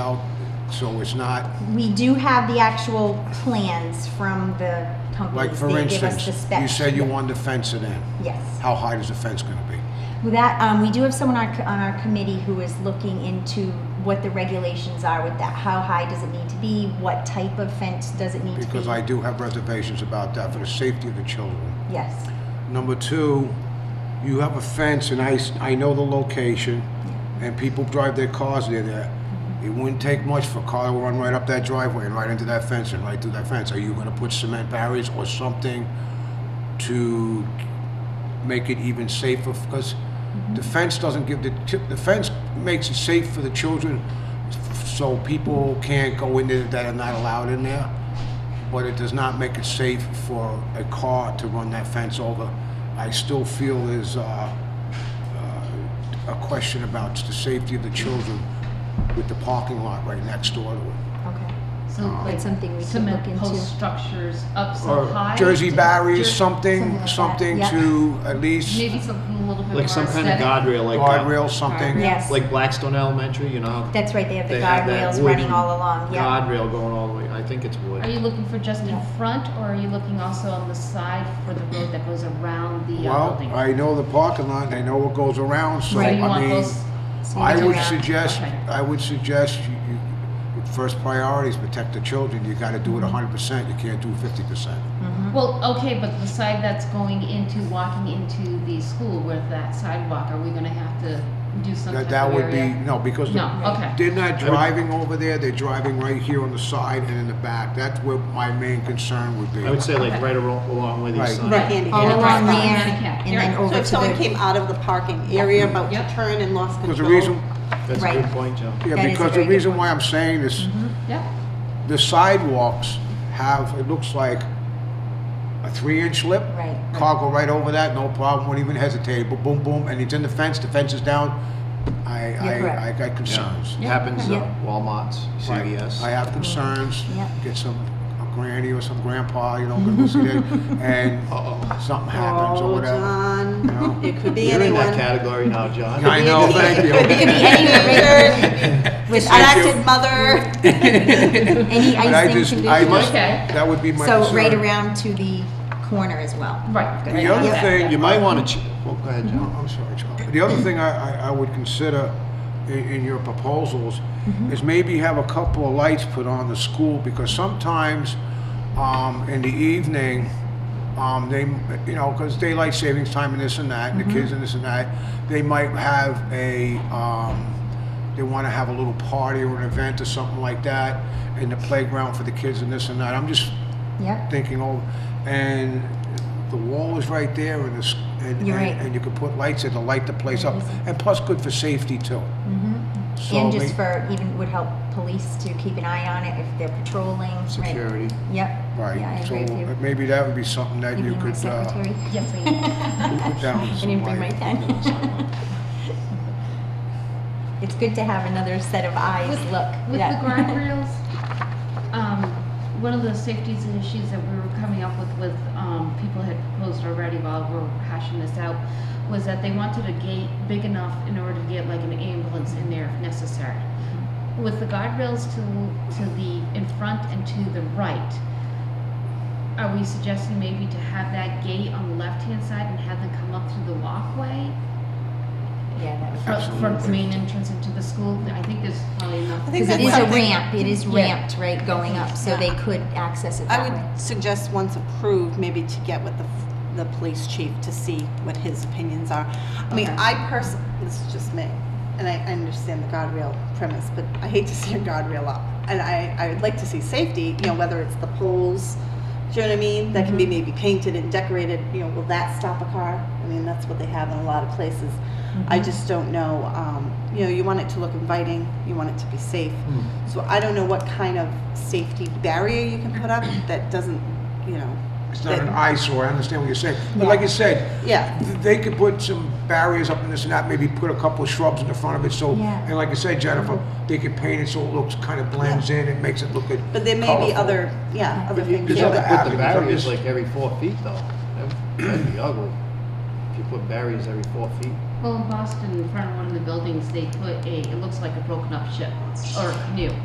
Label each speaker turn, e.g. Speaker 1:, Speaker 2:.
Speaker 1: so it's not,
Speaker 2: We do have the actual plans from the
Speaker 1: like,
Speaker 2: companies.
Speaker 1: for
Speaker 2: They give us
Speaker 1: instance,
Speaker 2: the
Speaker 1: you
Speaker 2: specs.
Speaker 1: said you wanted to fence it in.
Speaker 2: Yes.
Speaker 1: How high is the fence gonna be?
Speaker 2: With that, um, we do have someone on our, co- on our committee who is looking into what the regulations are with that. How high does it need to be? What type of fence does it need to be?
Speaker 1: Because I do have reservations about that for the safety of the children.
Speaker 2: Yes.
Speaker 1: Number two, you have a fence, and I, s- I know the location, and people drive their cars near there. It wouldn't take much for a car to run right up that driveway and right into that fence and right through that fence. Are you gonna put cement barriers or something to make it even safer? Because the fence doesn't give, the, ti- the fence makes it safe for the children, f- so people can't go in there that are not allowed in there but it does not make it safe for a car to run that fence over. I still feel there's uh, uh, a question about the safety of the children with the parking lot right next door to it.
Speaker 2: Okay.
Speaker 3: So
Speaker 1: Oh.
Speaker 3: like
Speaker 2: That's something we could
Speaker 3: cement
Speaker 2: look
Speaker 3: post
Speaker 2: into.
Speaker 3: structures up so
Speaker 1: Or
Speaker 3: high.
Speaker 1: Jersey barriers,
Speaker 3: Jer-
Speaker 1: something, something
Speaker 2: something like that,
Speaker 1: to at least
Speaker 3: Maybe something a little bit more
Speaker 4: Like some kind
Speaker 3: aesthetic.
Speaker 4: of guardrail, like uh, that-
Speaker 1: guardrail, something.
Speaker 2: Yes.
Speaker 4: like Blackstone Elementary, you know. how
Speaker 2: That's right, they have the
Speaker 4: they have that
Speaker 2: guardrails running
Speaker 4: wooden
Speaker 2: all along, yeah.
Speaker 4: Guardrail going all the way. I think it's wood.
Speaker 3: Are you looking for just in
Speaker 2: Yeah.
Speaker 3: front, or are you looking also on the side for the road that goes around the uh,
Speaker 1: Well,
Speaker 3: building?
Speaker 1: I know the parking lot, I know what goes around, so
Speaker 3: So you
Speaker 1: I
Speaker 3: want
Speaker 1: mean,
Speaker 3: those?
Speaker 1: I
Speaker 2: Something
Speaker 1: would
Speaker 2: around.
Speaker 1: suggest,
Speaker 3: Okay.
Speaker 1: I would suggest you, you, your first priority is protect the children. You gotta do it hundred percent, you can't do fifty percent.
Speaker 3: Well, okay, but the side that's going into, walking into the school with that sidewalk, are we gonna have to do some
Speaker 1: That,
Speaker 3: type
Speaker 1: that
Speaker 3: of
Speaker 1: would be,
Speaker 3: area?
Speaker 1: no, because
Speaker 3: No,
Speaker 1: the-
Speaker 3: okay.
Speaker 1: they're not driving over there, they're driving right here on the side and in the back. That's where my main concern would be.
Speaker 4: I would say like
Speaker 3: Okay.
Speaker 4: right along, along with
Speaker 1: Right.
Speaker 4: these signs.
Speaker 5: Right, handicap.
Speaker 2: All
Speaker 3: Yeah,
Speaker 2: along there,
Speaker 3: right, handicap.
Speaker 2: and then
Speaker 3: Right.
Speaker 2: over
Speaker 5: So
Speaker 2: to the.
Speaker 5: if someone came out of the parking area about to
Speaker 3: Yep.
Speaker 5: turn and lost control.
Speaker 1: Because the reason,
Speaker 4: That's a
Speaker 2: Right.
Speaker 4: good point, Joe.
Speaker 2: Oh, That
Speaker 1: yeah,
Speaker 2: is a
Speaker 1: because
Speaker 2: very
Speaker 1: the
Speaker 2: good Mm-hmm.
Speaker 1: reason why I'm saying this,
Speaker 3: Yeah,
Speaker 1: the sidewalks have, it looks like a three-inch lip.
Speaker 2: Right.
Speaker 1: Car go right over that, no problem, won't even hesitate, boom, boom, boom, and it's in the fence, the fence is down. I,
Speaker 2: You're correct.
Speaker 1: I, I got concerns.
Speaker 4: It Happens
Speaker 2: Yeah.
Speaker 4: at Walmart's,
Speaker 1: Right. I
Speaker 4: CVS.
Speaker 1: have concerns,
Speaker 2: Mm-hmm. Yeah.
Speaker 1: get some a granny or some grandpa, you know, go see that, and something happens or
Speaker 5: Oh,
Speaker 1: whatever. you
Speaker 5: John,
Speaker 1: know?
Speaker 5: it could be
Speaker 4: You're in that
Speaker 5: anyone.
Speaker 4: category now, John.
Speaker 1: I know, thank
Speaker 5: It could be
Speaker 1: you.
Speaker 5: a teenager, distracted mother.
Speaker 2: Any
Speaker 1: But I
Speaker 2: icing
Speaker 1: just,
Speaker 2: conditions.
Speaker 1: I just,
Speaker 3: Okay.
Speaker 1: that would be my concern.
Speaker 2: So right around to the corner as well.
Speaker 3: right.
Speaker 2: The
Speaker 3: right,
Speaker 1: other
Speaker 3: yeah,
Speaker 1: thing
Speaker 3: yeah.
Speaker 4: You might want to, ch- well, go ahead, Joe.
Speaker 1: No, Oh, I'm sorry, Charlie. The other thing I, I, I would consider in, in your proposals
Speaker 2: Mm-hmm.
Speaker 1: is maybe have a couple of lights put on the school because sometimes, um, in the evening, um, they, you know, because daylight savings time and this and that, and the
Speaker 2: Mm-hmm.
Speaker 1: kids and this and that, they might have a, um, they want to have a little party or an event or something like that in the playground for the kids and this and that. I'm just
Speaker 2: Yep,
Speaker 1: thinking, oh, and the wall is right there, and it's, and,
Speaker 2: You're
Speaker 1: and,
Speaker 2: right.
Speaker 1: and you could put lights there to light the place up, and plus good for safety too.
Speaker 2: Mm-hmm.
Speaker 1: So
Speaker 2: and
Speaker 1: may-
Speaker 2: just for, even would help police to keep an eye on it if they're patrolling, right?
Speaker 4: Security.
Speaker 2: Yep, yeah, I
Speaker 1: Right, so
Speaker 2: agree with you.
Speaker 1: maybe that would be something that
Speaker 2: You
Speaker 1: you
Speaker 2: being my
Speaker 1: could, uh,
Speaker 2: secretary?
Speaker 3: Yes, I am.
Speaker 1: put down
Speaker 2: I
Speaker 1: some
Speaker 2: didn't bring my
Speaker 1: light.
Speaker 2: pen. It's good to have another set of eyes
Speaker 3: With-
Speaker 2: look.
Speaker 3: With the
Speaker 2: Yeah.
Speaker 3: guardrails, um, one of the safeties and issues that we were coming up with, with, um, people had proposed already while we we're hashing this out, was that they wanted a gate big enough in order to get like an ambulance in there if necessary.
Speaker 5: Mm-hmm.
Speaker 3: With the guardrails to, to the, in front and to the right, are we suggesting maybe to have that gate on the left-hand side and have them come up through the walkway?
Speaker 2: Yeah, that would-
Speaker 3: From, from the main entrance into the school, I think there's probably enough.
Speaker 5: I think
Speaker 2: Because it
Speaker 5: that's
Speaker 2: is a
Speaker 5: something-
Speaker 2: ramp, it is
Speaker 3: Yeah.
Speaker 2: ramped, right, going up, so they
Speaker 3: Yeah.
Speaker 2: could access it
Speaker 5: I
Speaker 2: that way.
Speaker 5: would suggest once approved, maybe to get with the, the police chief to see what his opinions are. I mean,
Speaker 3: Okay.
Speaker 5: I person, this is just me, and I I understand the guardrail premise, but I hate to see a guardrail up. And I, I would like to see safety, you know, whether it's the poles, do you know what I mean? That can be maybe painted and decorated, you know, will that stop a car? I mean, that's what they have in a lot of places. I just don't know, um, you know, you want it to look inviting, you want it to be safe. So I don't know what kind of safety barrier you can put up that doesn't, you know.
Speaker 1: It's not
Speaker 5: that-
Speaker 1: an eyesore, I understand what you're saying, but
Speaker 2: Yeah.
Speaker 1: like you said,
Speaker 5: Yeah,
Speaker 1: th- they could put some barriers up in this and that, maybe put a couple of shrubs in the front of it, so,
Speaker 2: Yeah. Mm-hmm.
Speaker 1: and like I said, Jennifer, they could paint it so it looks, kind of blends in, it makes it look good.
Speaker 5: but there may be
Speaker 1: colorful.
Speaker 5: other, yeah, other
Speaker 4: You
Speaker 5: things.
Speaker 4: could
Speaker 1: There's other
Speaker 4: put the
Speaker 1: avenues, I'm
Speaker 4: barriers
Speaker 1: just-
Speaker 4: like every four feet though. That- That'd be ugly. If you put barriers every four feet.
Speaker 3: Well, in Boston, in front of one of the buildings, they put a, it looks like a broken up ship or canoe.